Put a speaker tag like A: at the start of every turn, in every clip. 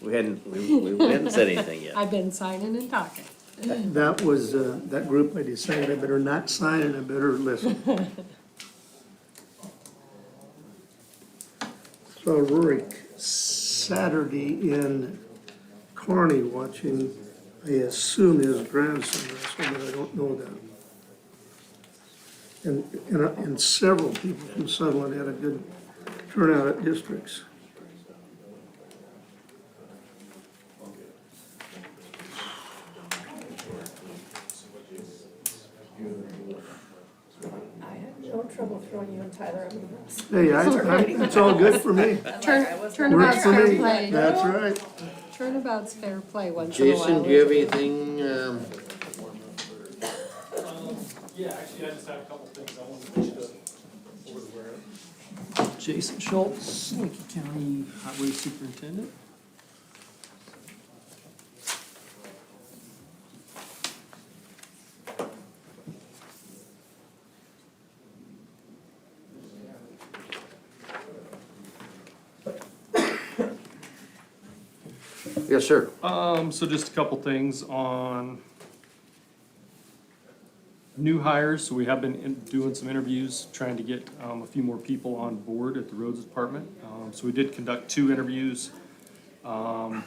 A: We hadn't, we, we hadn't said anything yet.
B: I've been signing and talking.
C: That was, uh, that group made me say, I better not sign and I better listen. So Rurik, Saturday in Carney watching, I assume his grandson wrestle, but I don't know that. And, and, I- and several people from Sutherland had a good turnout at districts.
D: I have no trouble throwing you and Tyler under the bus.
C: Hey, I, I- it's all good for me.
B: Turn,
C: Works
B: turnabout's
C: for
B: fair
C: me.
B: play,
C: That's right.
B: turnabout's fair play once in a while.
A: Jason, do you have
B: isn't it?
A: anything, um,
E: Yeah, actually, I just had a couple things I wanted to let you know, forward aware of.
A: um?
F: Jason Schultz, Lincoln County Highway Superintendent.
A: yes, sir.
E: Um, so just a couple things on new hires, so we have been in- doing some interviews, trying to get, um, a few more people on board at the roads department. Um, so we did conduct two interviews, um,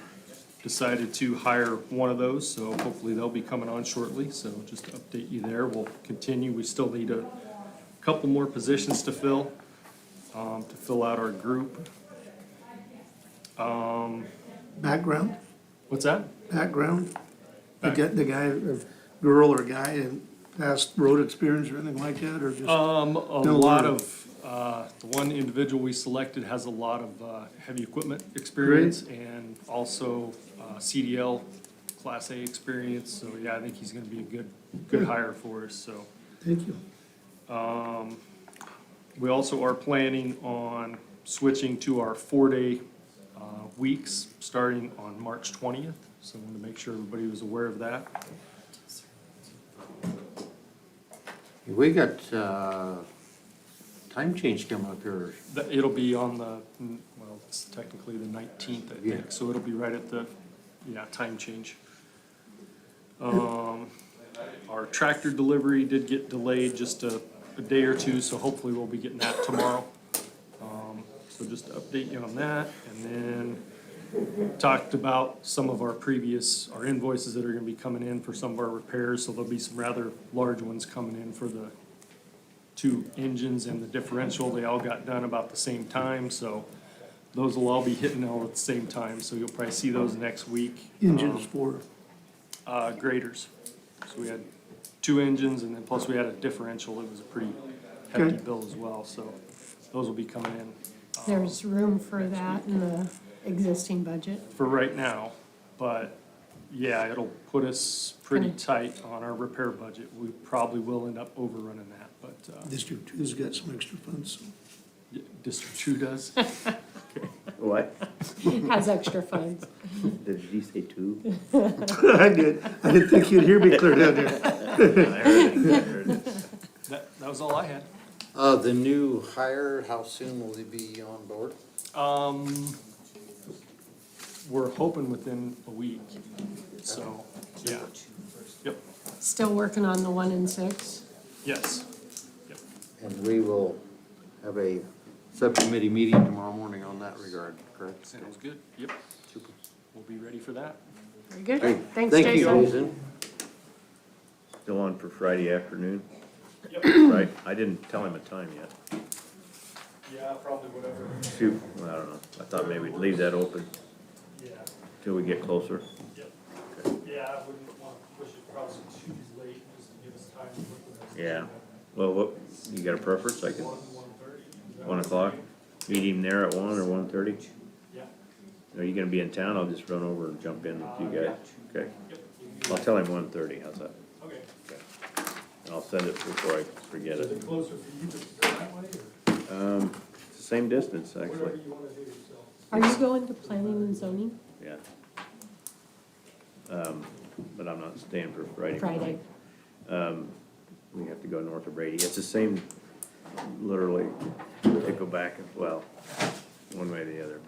E: decided to hire one of those, so hopefully they'll be coming on shortly, so just to update you there, we'll continue, we still need a couple more positions to fill, um, to fill out our group.
C: Background?
E: What's that?
C: background? The guy, the guy, uh, girl or guy, and past road experience or anything like that, or just?
E: Um, a
C: No
E: lot
C: worries.
E: of, uh, the one individual we selected has a lot of, uh, heavy equipment experience and also, uh, CDL Class A experience, so yeah, I think he's gonna be a good, good hire for us, so.
C: Thank you.
E: We also are planning on switching to our four-day, uh, weeks, starting on March twentieth, so I wanted to make sure everybody was aware of that.
A: We got, uh, time change coming up here.
E: That- It'll be on the, mm, well, it's technically the nineteenth, I
A: Yeah.
E: think, so it'll be right at the, yeah, time change. Um, our tractor delivery did get delayed just a, a day or two, so hopefully we'll be getting that tomorrow. Um, so just to update you on that, and then talked about some of our previous, our invoices that are gonna be coming in for some of our repairs, so there'll be some rather large ones coming in for the two engines and the differential, they all got done about the same time, so those will all be hitting all at the same time, so you'll probably see those next week.
C: Engines
E: Um,
C: for,
E: Uh, graders. So we had two engines and then plus we had a differential, it was a pretty hefty
C: Okay.
E: bill as well, so those will be coming in
B: There's room for that in the existing budget.
E: for right now. But yeah, it'll put us pretty
B: Okay.
E: tight on our repair budget. We probably will end up overrunning that, but, uh,
C: District Two's got some extra funds, so.
E: y- District Two does.
A: What?
B: Has extra funds.
A: Did you say two?
C: I did, I didn't think you'd hear me clear down there.
E: That, that was all I had.
A: Uh, the new hire, how soon will he be on board?
E: Um, we're hoping within a week, so, yeah. Yep,
B: Still working on the one and six.
E: yes, yep,
A: And we will have a subcommittee meeting tomorrow morning on that regard, correct?
E: sounds good, yep,
A: Super.
E: we'll be ready for that.
B: Very good.
A: Great.
B: Thanks,
A: Thank you,
B: Jason.
A: Jason.
G: Still on for Friday afternoon?
E: Yep.
G: Right, I didn't tell him a time yet.
E: Yeah, probably whatever,
G: Shoot, I don't know, I thought maybe we'd leave that open
E: yeah,
G: till we get closer.
E: yep. Yeah, I wouldn't want to push it probably too late, just to give us time to look at
G: Yeah, well, what, you got a preference, I can,
E: one thirty.
G: one o'clock? Meet him there at one or one thirty?
E: Yeah.
G: Are you gonna be in town, I'll just run over and jump in with you
E: Uh,
G: guys, okay? I'll tell him one thirty, how's that?
E: Okay,
G: And I'll send it before I forget
E: is
G: it.
E: it closer for you to go that way,
G: Um, it's the same distance,
E: or whatever
G: actually,
E: you want to do, so.
B: Are you going to planning and zoning
G: yeah. Um, but I'm not staying for Friday.
B: Friday?
G: We have to go north of Brady. It's the same, literally, they go back, and well, one way or the other,